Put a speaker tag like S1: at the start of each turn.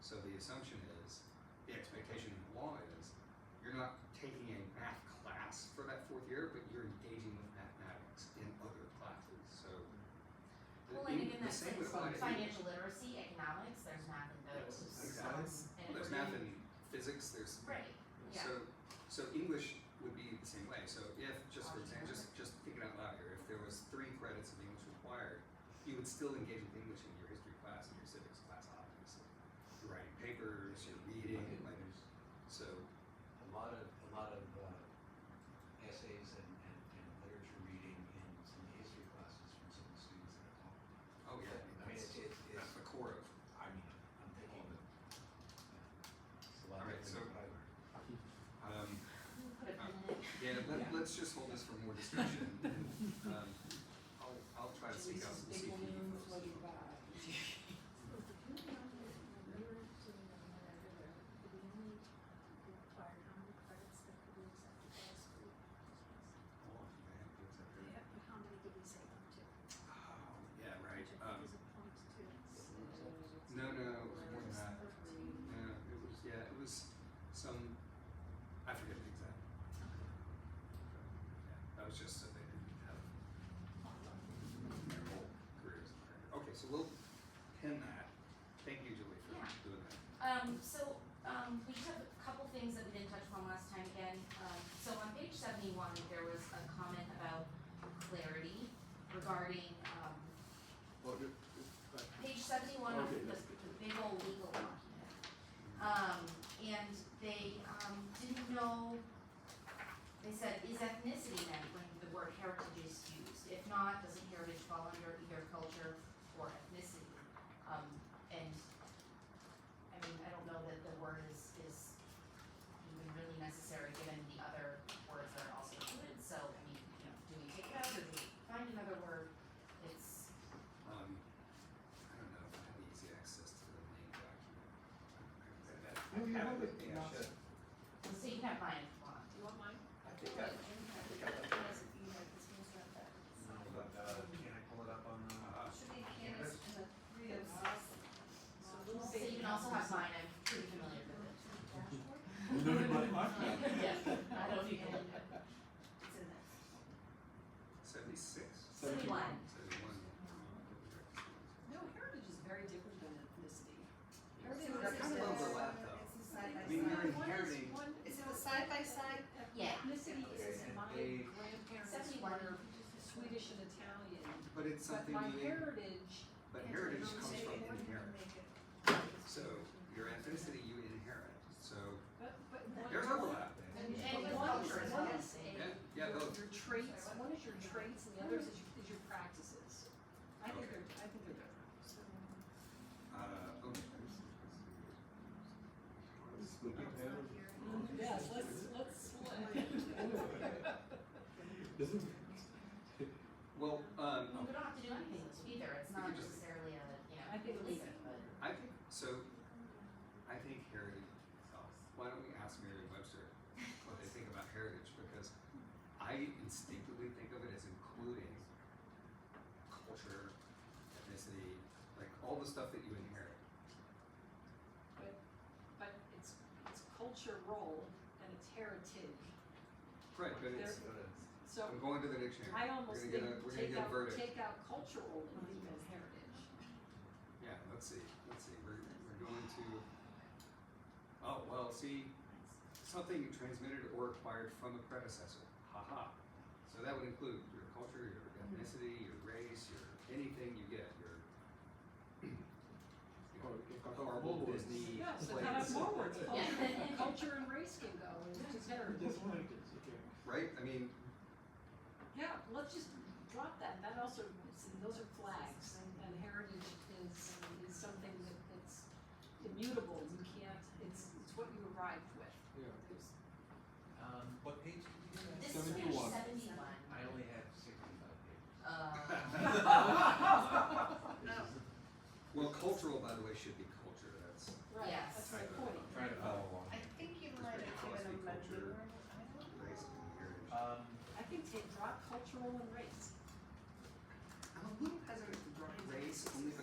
S1: So the assumption is, the expectation in the law is, you're not taking a math class for that fourth year, but you're engaging with mathematics in other classes, so. the-
S2: Well, and again,
S1: the
S2: that's
S1: same
S2: like
S1: would apply to English.
S2: financial literacy, economics, there's math in those.
S1: Exactly.
S2: And
S1: Well, there's
S2: we're
S1: math
S2: doing-
S1: and physics, there's
S2: Right, yeah.
S1: So, so English would be the same way. So if, just for
S2: Option
S1: example, just, just think it out loud here, if there was three credits of English required, you would still engage with English in your history class and your civics class, obviously. You're writing papers, you're reading, like, so,
S3: a lot of, a lot of uh, essays and, and, and literature reading in some of the history classes from some of the students that I talk to.
S1: oh yeah, I mean,
S3: I mean, it's,
S1: that's,
S3: it's,
S1: that's
S3: it's,
S1: the core of,
S3: I mean, I'm thinking of. It's a lot
S1: All
S3: of
S1: right,
S3: things
S1: so-
S3: that I learned.
S1: um,
S2: We'll put a pin in it.
S1: yeah, let,
S3: Yeah.
S1: let's just hold this for more discussion. and, Um, I'll, I'll try to seek out some CPE folks. as well. Oh, man, that's a good- Oh, yeah, right, um, No, no, it was more than that. No, Uh, it was yeah, it was some. I forget the exact. Yeah, that was just so they didn't have their whole careers. in there. Okay, so we'll pin that. Thank you, Julie, for
S2: Yeah.
S1: doing that.
S2: Um, so, um, we took a couple things that we didn't touch on last time again. Um, so on page seventy-one, there was a comment about clarity regarding, um,
S4: Well, you
S2: page seventy-one of
S4: Okay,
S2: the,
S4: that's
S2: the big old legal document. Um, and they, um, didn't know, they said, is ethnicity meant when the word heritage is used? If not, doesn't heritage fall under either culture or ethnicity? Um, and, I mean, I don't know that the word is, is even really necessary given the other words that are also included, so, I mean, you know, do we take it out or do we find another word? It's,
S1: Um, I don't know if I have easy access to the main document. I- I- I- I
S4: No, you
S1: have
S4: have
S1: it,
S4: it,
S1: yeah, I
S4: yeah.
S1: should.
S2: So you can have mine if you want.
S5: You want mine?
S3: I think I, I think I left it. But, uh, can I pull it up on, uh,
S5: Should be Candace and the three of us. So little
S2: So you
S5: baby.
S2: can also have mine, I'm pretty familiar with it.
S1: Uh,
S4: know anybody?
S2: Yeah, I don't know if you can. It's in there.
S1: Seventy-six?
S2: Seventy-one.
S1: Seventy-one.
S5: No, heritage is very different than ethnicity.
S1: They're kind of overlap though.
S6: It's a side by
S1: I mean, you're
S6: side.
S1: inheriting.
S6: Is it a side by side?
S2: Yeah.
S5: Ethnicity is
S3: Okay,
S5: my
S3: and they-
S5: grandparents
S2: Seventy-one.
S5: were Swedish and Italian,
S1: But it's
S5: but
S1: something
S5: my
S1: you,
S5: heritage,
S1: but heritage comes
S6: Say
S1: from
S6: it wouldn't
S1: inherit.
S6: make it.
S1: So your ethnicity you inherit. So
S5: but, but one.
S1: there's overlap.
S2: And
S5: But
S2: with
S5: one is,
S2: culture as
S5: one
S2: well.
S5: is a,
S1: Yeah, yeah,
S5: your,
S1: both.
S5: your traits, one is your traits and the other is your, is your practices. I think
S1: Okay.
S5: they're, I think they're different.
S1: Uh, okay.
S4: Split the panel.
S5: Yes, let's, let's,
S4: Doesn't-
S1: Well,
S2: I mean,
S1: um,
S2: we don't have to do anything with it either,
S1: We
S2: it's not
S1: can just-
S2: necessarily a, you know,
S5: I think
S2: leave
S5: it's-
S2: it, but.
S1: I think so. I think heritage. oh, Why don't we ask Merriam Webster what they think about heritage? Because I instinctively think of it as including culture, ethnicity, like all the stuff that you inherit.
S5: but it's, it's culture role and it's heritage.
S1: Right, but it's.
S3: go to-
S5: So
S1: I'm going to the dictionary.
S5: I almost
S1: We're
S5: think
S1: gonna get a- we're gonna
S5: take
S1: get a
S5: out,
S1: verdict.
S5: take out cultural and leave in heritage.
S1: Yeah, let's see, let's see, we're, we're going to, oh, well, see, something transmitted or acquired from a predecessor, haha. So that would include your culture, your ethnicity, your race, your, anything you get, your. you
S3: Oh,
S1: know,
S4: Or if I go
S1: Marvel,
S4: forward.
S1: Disney,
S5: Yeah, so
S1: plays,
S5: kind of more words, culture,
S2: Yeah.
S5: culture and race can go, and it's just heritage.
S4: Just wanted to- okay.
S1: right, I mean,
S5: Yeah, let's just drop that, that also, see, those are flags, and, and heritage is, is something that, that's immutable, you can't, it's, it's what you arrived with.
S4: Yeah.
S5: There's-
S3: um, what page did you do
S2: This is
S3: that?
S2: page
S4: 71.
S2: seventy-one,
S3: I only have sixty-five pages.
S2: uh,
S1: well, cultural, by the way, should be culture, that's,
S5: Right,
S2: Yes.
S5: that's my point.
S3: Trying to follow along.
S6: I think you might have given them a
S1: Culture.
S6: newer, I don't know.
S1: race, and heritage.
S3: Um,
S5: I think take, drop cultural and race.
S1: I'm a little hesitant to draw race only